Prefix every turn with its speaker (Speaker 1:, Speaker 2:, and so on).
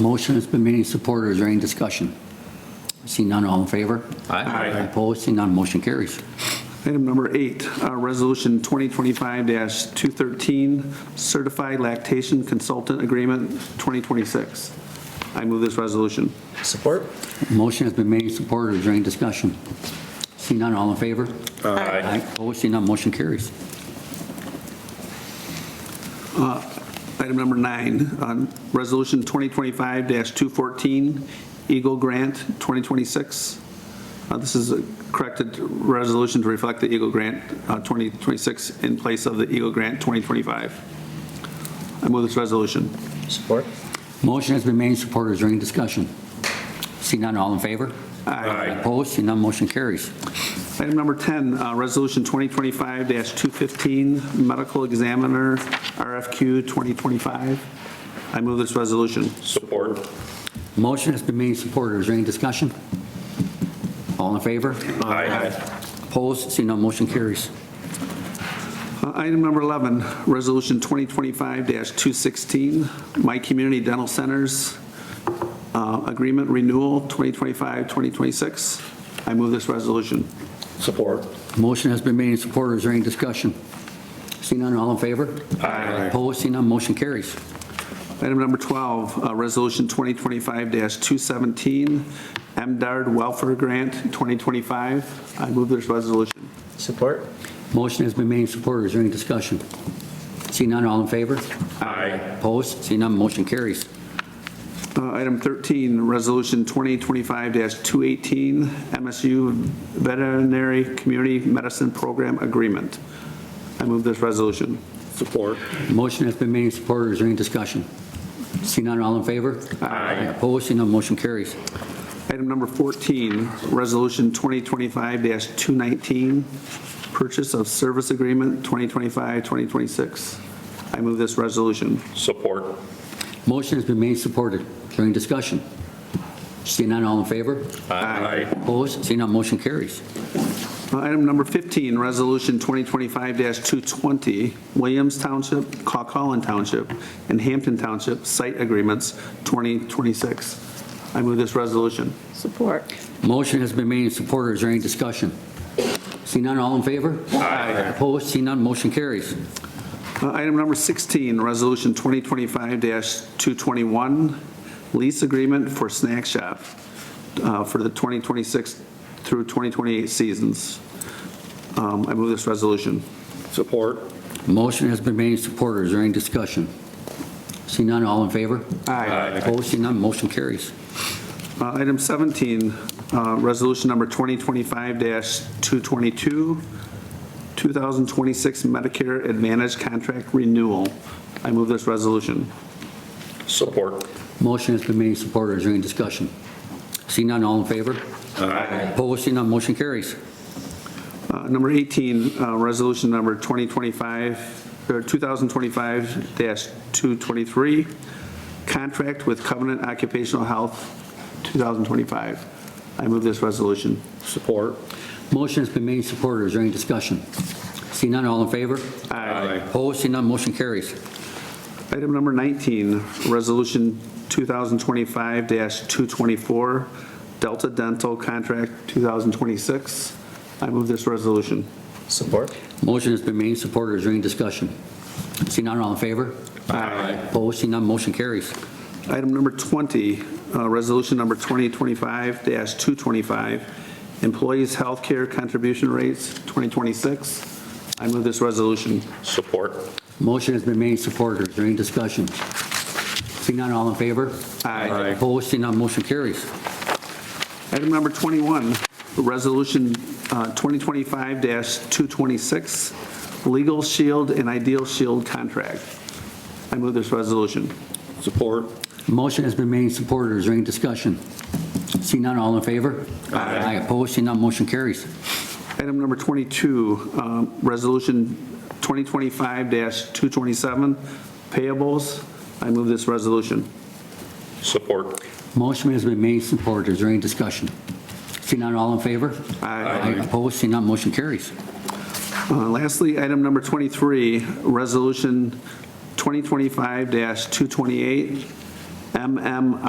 Speaker 1: Motion has been made and supported. Is there any discussion? See none, all in favor?
Speaker 2: Aye.
Speaker 1: Opposed, see none, motion carries.
Speaker 3: Item number eight, uh, Resolution 2025-213, Certified Lactation Consultant Agreement 2026. I move this resolution.
Speaker 4: Support?
Speaker 1: Motion has been made and supported. Is there any discussion? See none, all in favor?
Speaker 2: Aye.
Speaker 1: Opposed, see none, motion carries.
Speaker 3: Item number nine, um, Resolution 2025-214, Eagle Grant 2026. Uh, This is a corrected resolution to reflect the Eagle Grant uh, 2026 in place of the Eagle Grant 2025. I move this resolution.
Speaker 4: Support?
Speaker 1: Motion has been made and supported. Is there any discussion? See none, all in favor? Opposed, see none, motion carries.
Speaker 3: Item number 10, uh, Resolution 2025-215, Medical Examiner, RFQ 2025. I move this resolution.
Speaker 2: Support.
Speaker 1: Motion has been made and supported. Is there any discussion? All in favor?
Speaker 2: Aye.
Speaker 1: Opposed, see none, motion carries.
Speaker 3: Uh, Item number 11, Resolution 2025-216, My Community Dental Centers uh, Agreement Renewal 2025-2026. I move this resolution.
Speaker 2: Support.
Speaker 1: Motion has been made and supported. Is there any discussion? See none, all in favor?
Speaker 2: Aye.
Speaker 1: Opposed, see none, motion carries.
Speaker 3: Item number 12, uh, Resolution 2025-217, MDARD Welfare Grant 2025. I move this resolution.
Speaker 4: Support?
Speaker 1: Motion has been made and supported. Is there any discussion? See none, all in favor?
Speaker 2: Aye.
Speaker 1: Opposed? See none, motion carries.
Speaker 3: Uh, Item 13, Resolution 2025-218, MSU Veterinary Community Medicine Program Agreement. I move this resolution.
Speaker 2: Support.
Speaker 1: Motion has been made and supported. Is there any discussion? See none, all in favor?
Speaker 2: Aye.
Speaker 1: Opposed? See none, motion carries.
Speaker 3: Item number 14, Resolution 2025-219, Purchase of Service Agreement 2025-2026. I move this resolution.
Speaker 2: Support.
Speaker 1: Motion has been made and supported. Is there any discussion? See none, all in favor?
Speaker 2: Aye.
Speaker 1: Opposed? See none, motion carries.
Speaker 3: Item number 15, Resolution 2025-220, Williams Township, Cocallan Township, and Hampton Township Site Agreements 2026. I move this resolution.
Speaker 5: Support.
Speaker 1: Motion has been made and supported. Is there any discussion? See none, all in favor?
Speaker 2: Aye.
Speaker 1: Opposed? See none, motion carries.
Speaker 3: Uh, Item number 16, Resolution 2025-221, Lease Agreement for Snack Shop uh, for the 2026 through 2028 seasons. Um, I move this resolution.
Speaker 2: Support.
Speaker 1: Motion has been made and supported. Is there any discussion? See none, all in favor? Opposed? See none, motion carries.
Speaker 3: Uh, Item 17, uh, Resolution Number 2025-222, 2026 Medicare Advantage Contract Renewal. I move this resolution.
Speaker 2: Support.
Speaker 1: Motion has been made and supported. Is there any discussion? See none, all in favor?
Speaker 2: Aye.
Speaker 1: Opposed? See none, motion carries.
Speaker 3: Uh, Number 18, uh, Resolution Number 2025, or 2025-223, Contract with Covenant Occupational Health, 2025. I move this resolution.
Speaker 2: Support.
Speaker 1: Motion has been made and supported. Is there any discussion? See none, all in favor? Opposed? See none, motion carries.
Speaker 3: Item number 19, Resolution 2025-224, Delta Dental Contract 2026. I move this resolution.
Speaker 4: Support?
Speaker 1: Motion has been made and supported. Is there any discussion? See none, all in favor?
Speaker 2: Aye.
Speaker 1: Opposed? See none, motion carries.
Speaker 3: Item number 20, uh, Resolution number 2025-225, Employees Healthcare Contribution Rates 2026. I move this resolution.
Speaker 2: Support.
Speaker 1: Motion has been made and supported. Is there any discussion? See none, all in favor?
Speaker 2: Aye.
Speaker 1: Opposed? See none, motion carries.
Speaker 3: Item number 21, Resolution uh, 2025-226, Legal Shield and Ideal Shield Contract. I move this resolution.
Speaker 2: Support.
Speaker 1: Motion has been made and supported. Is there any discussion? See none, all in favor? Aye. Opposed? See none, motion carries.
Speaker 3: Item number 22, um, Resolution 2025-227, Payables. I move this resolution.
Speaker 2: Support.
Speaker 1: Motion has been made and supported. Is there any discussion? See none, all in favor?
Speaker 3: Aye.
Speaker 1: Opposed? See none, motion carries.
Speaker 3: Uh, Lastly, item number 23, Resolution 2025-228, MMR